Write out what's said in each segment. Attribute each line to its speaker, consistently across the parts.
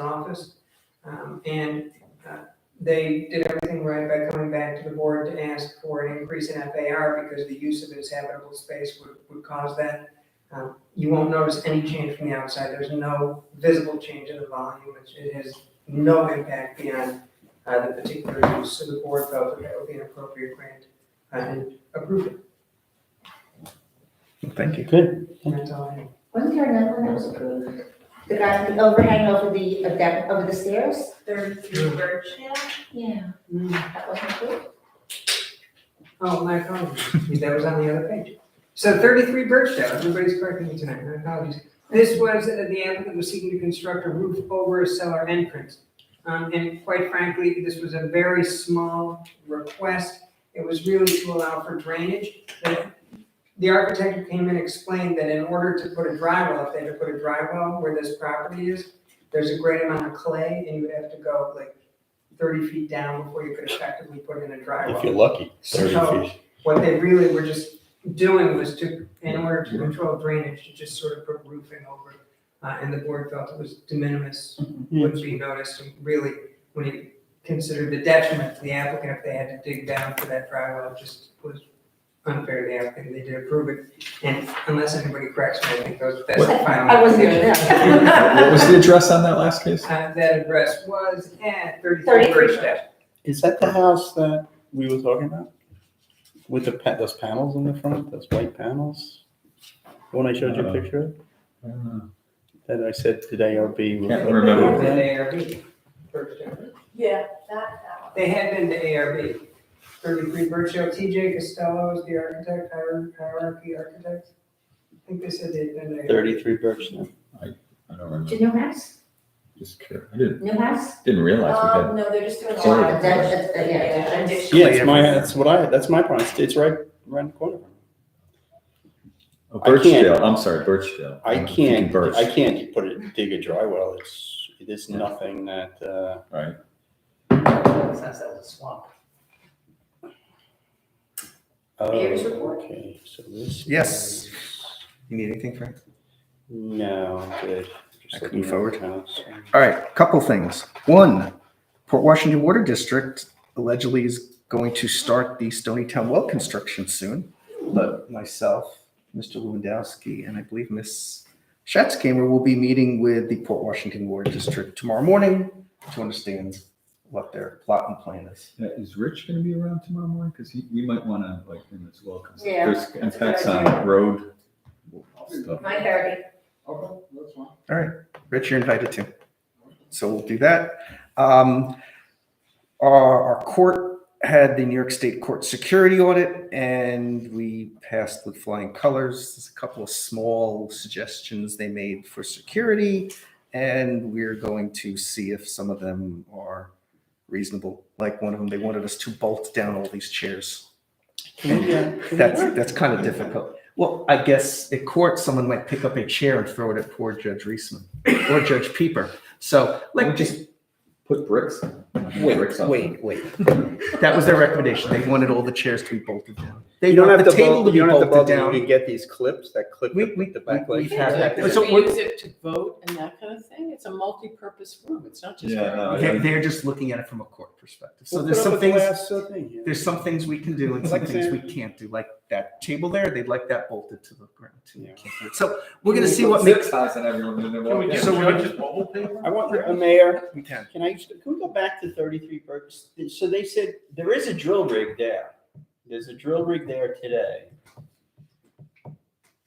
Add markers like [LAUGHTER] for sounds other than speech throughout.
Speaker 1: office. Um, and, uh, they did everything right by coming back to the board to ask for an increase in FAR because the use of it as habitable space would, would cause that. Um, You won't notice any change from the outside. There's no visible change in the volume. It's- It has no impact beyond, uh, the particular use. So the board felt that that would be an appropriate grant uh, and approved it.
Speaker 2: Thank you.
Speaker 3: Good.
Speaker 1: And that's all I have.
Speaker 4: Wasn't there another one that was approved? The guy with the overhang over the, of that, over the stairs?
Speaker 5: Thirty-three Birchdale.
Speaker 4: Yeah. That wasn't approved?
Speaker 1: Oh, my apologies. That was on the other page. So thirty-three Birchdale, everybody's correcting me tonight, my apologies. This was, uh, the applicant was seeking to construct a roof over a cellar entrance. Um, and quite frankly, this was a very small request. It was really to allow for drainage. The- The architect came and explained that in order to put a dry well, if they had to put a dry well where this property is, there's a great amount of clay and you would have to go like thirty feet down before you could effectively put in a dry well.
Speaker 3: If you're lucky, thirty
Speaker 1: So-
Speaker 3: feet.
Speaker 1: what they really were just doing was to, in order to control drainage, to just sort of put roofing over. it. Uh, and the board felt it was de minimis,
Speaker 2: Mm-hmm.
Speaker 1: wouldn't be noticed, and really, when you consider the detriment to the applicant if they had to dig down for that drywall, it just was unfair to the applicant, they did approve it. And unless anybody corrects me, I think those, that's the final.
Speaker 4: I wasn't here [LAUGHS]
Speaker 2: What
Speaker 4: then.
Speaker 2: was the address on that last case?
Speaker 1: [LAUGHS] Uh, that address was at thirty-three
Speaker 4: 33.
Speaker 1: Bridgestone.
Speaker 3: Is that the house that we were talking about? With the, pa- those panels in the front, those white panels? The one I showed you a
Speaker 2: Uh,
Speaker 3: picture of, that I said today ARB. was-
Speaker 2: Can't remember.
Speaker 1: They had been to ARB, Bridgestone.
Speaker 5: Yeah, that, that
Speaker 1: They had been to ARB, thirty-three Birchill, TJ Costello is the architect, hier- hierarchy architect. I think they said they'd been to. ARB.
Speaker 3: Thirty-three Birchland.
Speaker 2: I don't remember.
Speaker 4: To Newhouse?
Speaker 2: Just kidding. I didn't,
Speaker 4: Newhouse?
Speaker 2: didn't realize we
Speaker 5: one.
Speaker 2: had.
Speaker 5: Um, no, they're just doing a
Speaker 2: Sorry.
Speaker 5: lot of.
Speaker 4: That- that- that- yeah, that's-
Speaker 5: addition.
Speaker 3: Yeah, it's my, that's what I, that's my problem. It's- It's right, right in the corner.
Speaker 2: Oh,
Speaker 3: I can't-
Speaker 2: Birchdale, I'm sorry, Birchdale.
Speaker 3: I
Speaker 2: I'm thinking
Speaker 3: can't,
Speaker 2: Birch.
Speaker 3: I can't put it, dig a dry well. It's, it's nothing that, uh,
Speaker 5: Since that was a swamp.
Speaker 3: oh,
Speaker 4: Mayor's report?
Speaker 3: okay, so this.
Speaker 2: Yes.
Speaker 3: is-
Speaker 2: You need anything, Frank?
Speaker 3: No, I'm good. Just
Speaker 2: I can move
Speaker 3: looking at the house.
Speaker 2: All right, couple things. One, Port Washington Water District allegedly is going to start the Stonytown well construction soon. But myself, Mr. Lewandowski, and I believe Ms. Schatzkamer will be meeting with the Port Washington Water District tomorrow morning to understand what their plot and plan is.
Speaker 6: Yeah, Uh, is Rich gonna be around tomorrow morning? Cause he, we might wanna, like, him as well, cause
Speaker 4: Yeah,
Speaker 6: there's
Speaker 4: that's a good
Speaker 6: impacts on
Speaker 4: idea.
Speaker 6: road stuff.
Speaker 4: My thirty.
Speaker 6: Okay, that's fine.
Speaker 2: Rich, you're invited too. So we'll do that. Um, our, our court had the New York State Court security audit and we passed with flying colors. There's a couple of small suggestions they made for security. And we're going to see if some of them are reasonable. Like one of them, they wanted us to bolt down all these chairs.
Speaker 3: Can we, uh, can we
Speaker 2: That's,
Speaker 3: work
Speaker 2: that's kind of difficult. Well, I guess at court, someone might pick up a chair and throw it at poor Judge Reisman or Judge Pieper. So like, just
Speaker 6: Put bricks. on it.
Speaker 2: wait,
Speaker 6: Bricks on it.
Speaker 2: wait, wait. That was their recommendation. They wanted all the chairs to be bolted down. They
Speaker 3: You don't
Speaker 2: want
Speaker 3: have to
Speaker 2: the table
Speaker 3: vote,
Speaker 2: to be
Speaker 3: you don't have to
Speaker 2: bolted
Speaker 3: vote, but you
Speaker 2: down.
Speaker 3: can get these clips that clip
Speaker 2: We-
Speaker 3: the
Speaker 2: we-
Speaker 3: the back
Speaker 2: we-
Speaker 3: leg.
Speaker 2: we've had that.
Speaker 7: Yeah,
Speaker 2: So
Speaker 7: Do they
Speaker 2: what-
Speaker 7: use it to vote and that kind of thing? It's a multi-purpose room. It's not just.
Speaker 6: Yeah, no,
Speaker 2: They- They're just looking at it from a court perspective. So
Speaker 3: We'll
Speaker 2: there's
Speaker 3: put up
Speaker 2: some
Speaker 3: a
Speaker 2: things,
Speaker 3: glass, uh, thing here.
Speaker 2: there's some things we can do and some
Speaker 3: Like
Speaker 2: things we
Speaker 3: sand.
Speaker 2: can't do. Like that table there, they'd like that bolted to the ground too. We
Speaker 3: Yeah.
Speaker 2: can't do it. So we're gonna
Speaker 6: We
Speaker 2: see
Speaker 6: put
Speaker 2: what
Speaker 6: six
Speaker 2: makes.
Speaker 6: eyes on everyone and then
Speaker 7: Can we
Speaker 6: walk
Speaker 7: get
Speaker 2: So
Speaker 6: in.
Speaker 2: we're-
Speaker 7: judges mobile paper?
Speaker 3: I want, uh, Mayor,
Speaker 2: We can.
Speaker 3: can I, just- can we go back to thirty-three Burgess? So they said, there is a drill rig there. There's a drill rig there today.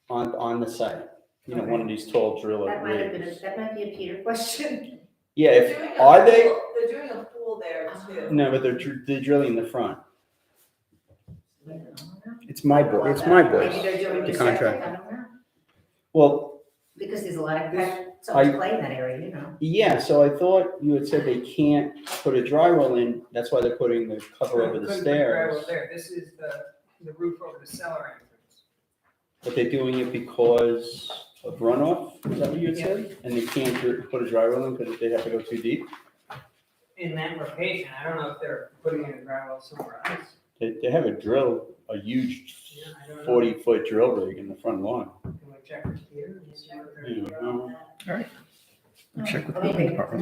Speaker 3: On, on the site, you know, one of these tall drill
Speaker 4: That might have been, a-
Speaker 3: rigs.
Speaker 4: that might be a Peter question.
Speaker 3: Yeah,
Speaker 5: They're
Speaker 3: if,
Speaker 5: doing a
Speaker 3: are they,
Speaker 5: pool- They're doing a pool there
Speaker 7: Uh-huh.
Speaker 5: too.
Speaker 3: no, but they're, dr- they're drilling the front. It's my boy, it's my
Speaker 4: Maybe
Speaker 3: boy.
Speaker 4: they're doing
Speaker 3: The
Speaker 4: just I
Speaker 3: contract.
Speaker 4: don't know,
Speaker 3: Well,
Speaker 4: because there's a lot of, so
Speaker 3: I-
Speaker 4: much play in that area, you know.
Speaker 3: Yeah, so I thought you had said they can't put a drywall in, that's why they're putting the cover over
Speaker 1: Couldn't
Speaker 3: the
Speaker 1: put
Speaker 3: stairs.
Speaker 1: drywall There, this is the, the roof over the cellar entrance.
Speaker 3: But they're doing it because of runoff, is that what you had
Speaker 1: Yeah.
Speaker 3: said? And they can't dri- put a drywall in because they have to go too deep?
Speaker 1: In that location, I don't know if they're putting in a gravel somewhere else.
Speaker 3: They, they have a drill, a huge
Speaker 1: Yeah, I don't know.
Speaker 3: forty-foot drill rig in the front lawn. Hmm.
Speaker 1: Can we check it here? and see what they're-
Speaker 3: You know,
Speaker 2: Check with the
Speaker 4: Okay.
Speaker 2: building department.